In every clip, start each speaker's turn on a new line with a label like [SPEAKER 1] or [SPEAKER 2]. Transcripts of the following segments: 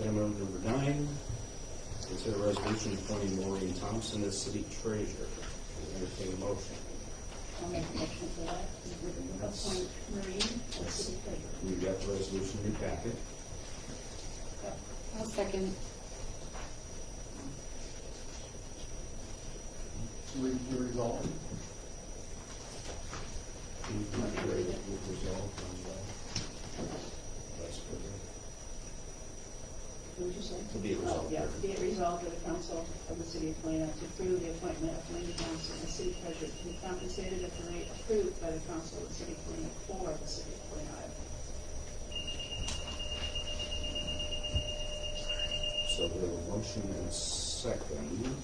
[SPEAKER 1] Item number nine, consider resolution appointing Maureen Thompson as city treasurer. Entertain a motion.
[SPEAKER 2] I'll make a motion for that. Appoint Maureen as city treasurer.
[SPEAKER 1] We've got the resolution in your packet.
[SPEAKER 2] I'll second.
[SPEAKER 3] Read the result.
[SPEAKER 1] Can you please read it with resolve on the vice president?
[SPEAKER 2] What did you say?
[SPEAKER 1] To be resolved.
[SPEAKER 2] Oh, yeah, be it resolved that the council of the city of Helena to approve the appointment of Helena Johnson as city treasurer to be compensated at the rate approved by the council of the city of Helena for the city of Helena, Iowa.
[SPEAKER 1] So we have a motion and a second.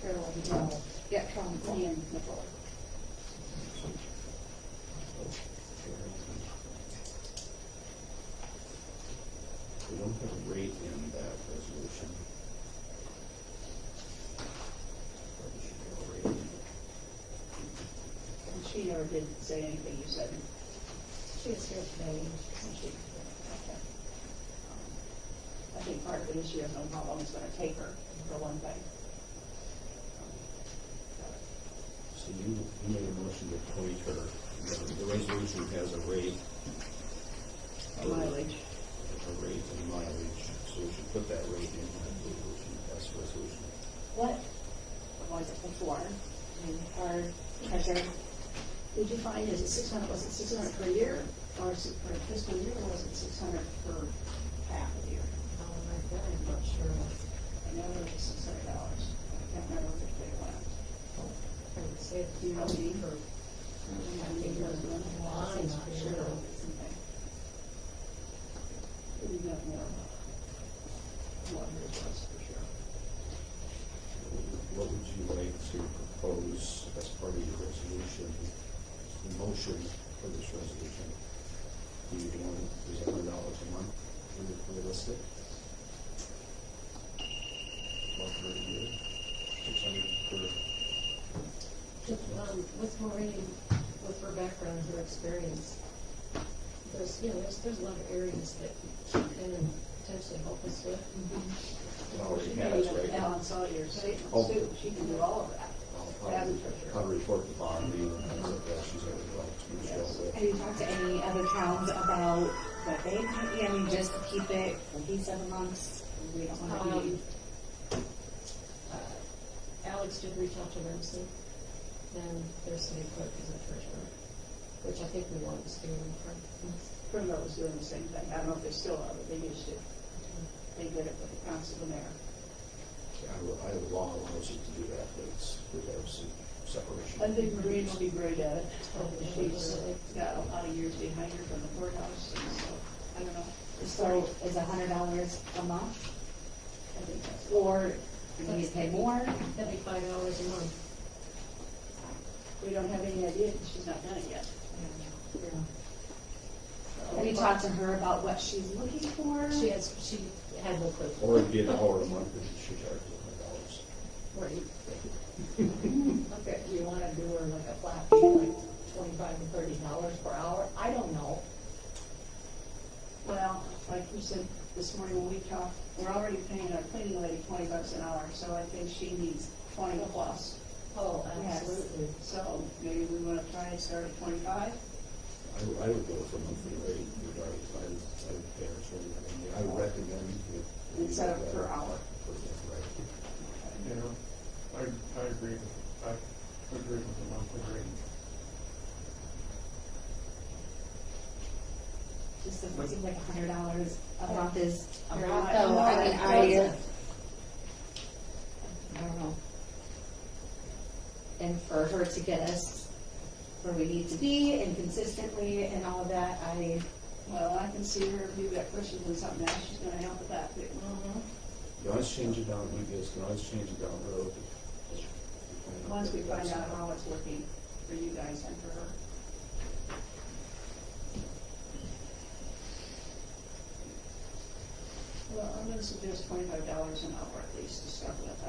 [SPEAKER 2] Carol, you know, yeah, Carol, Ian, Nicole.
[SPEAKER 1] We don't have a rate in that resolution. Probably should have a rate in it.
[SPEAKER 2] And she never did say anything you said. She was here today. I think part of it is she doesn't know how long it's gonna take her, for one thing.
[SPEAKER 1] So you you made a motion to appoint her. The- The resolution has a rate.
[SPEAKER 2] Um, Mileage.
[SPEAKER 1] A rate and mileage, so we should put that rate in that resolution, that's the resolution.
[SPEAKER 2] What was it before? And our treasurer, did you find, is it six hundred, was it six hundred per year? Or is it per fiscal year, or was it six hundred per half a year?
[SPEAKER 4] Um, I'm very not sure.
[SPEAKER 2] I know it was six hundred dollars. I can't remember which way it went.
[SPEAKER 4] I would say if you
[SPEAKER 2] I'll be-
[SPEAKER 4] or
[SPEAKER 2] We got more, more requests for sure.
[SPEAKER 1] What would you like to propose as part of your resolution, the motion for this resolution? Do you want, is it hundred dollars a month, Is it realistic? Or per year, six hundred per,
[SPEAKER 4] Um, with Maureen, with her background, her experience, there's, you know, there's, there's a lot of areas that she can potentially help us with.
[SPEAKER 1] it already has, right?
[SPEAKER 2] Alan Sawyer, she,
[SPEAKER 1] Oh.
[SPEAKER 2] she can do all of that.
[SPEAKER 1] I'll probably, probably report the bond, and things like that, she's already like, she's well
[SPEAKER 5] Have you talked to any other towns about what they, I mean, just to keep it cohesive amongst, we don't want to be.
[SPEAKER 4] Um, uh, Alex did reach out to um, Ramsey, and their city clerk is um, a treasurer, which I think we want to steer them from.
[SPEAKER 2] Primrose was doing the same thing. I don't know if they still are, but they used to. They did it with the council of the
[SPEAKER 1] I,
[SPEAKER 2] mayor.
[SPEAKER 1] I have law allows you to do that, but it's, there's a separation.
[SPEAKER 2] I think Maureen will be great at it.
[SPEAKER 4] Oh,
[SPEAKER 2] She's
[SPEAKER 4] really?
[SPEAKER 2] got a lot of years behind her from the courthouse, and so, I don't know.
[SPEAKER 5] So is a hundred dollars a month,
[SPEAKER 2] I think that's-
[SPEAKER 5] or do we need to pay more?
[SPEAKER 4] That'd be five dollars a month.
[SPEAKER 2] We don't have any idea, 'cause she's not done it yet.
[SPEAKER 5] Have you talked to her about what she's looking for?
[SPEAKER 4] She has, she had no clue.
[SPEAKER 1] Or it'd be an hour a month, and she charges hundred dollars.
[SPEAKER 4] Right. Okay, you wanna do her like a flat fee, like twenty-five to thirty dollars per hour? I don't know.
[SPEAKER 2] Well, like you said this morning when we talked, we're already paying our cleaning lady twenty bucks an hour, so I think she needs twenty plus.
[SPEAKER 4] Oh,
[SPEAKER 2] Yes. So maybe we wanna try and start at twenty-five?
[SPEAKER 1] I, would- I would go for monthly rate, regardless, I would, I would pay her, so, I mean, I would recommend if.
[SPEAKER 2] Instead of per hour.
[SPEAKER 1] Per, right.
[SPEAKER 3] Yeah, I, I agree with, I agree with the monthly rate.
[SPEAKER 5] Just doesn't seem like a hundred dollars a month is a
[SPEAKER 2] You're
[SPEAKER 5] lot,
[SPEAKER 2] not-
[SPEAKER 5] though,
[SPEAKER 2] no,
[SPEAKER 5] I mean,
[SPEAKER 2] it
[SPEAKER 5] I,
[SPEAKER 2] doesn't.
[SPEAKER 5] I don't know. And for her to get us where we need to be and consistently and all of that, I,
[SPEAKER 2] Well, I can see her, if you've got questions on something else, she's gonna help with that too.
[SPEAKER 1] You always change it down, you guys can always change it down the road.
[SPEAKER 2] Once we find out how it's working for you guys and for her. Well, I'm gonna suggest twenty-five dollars an hour at least to start with, I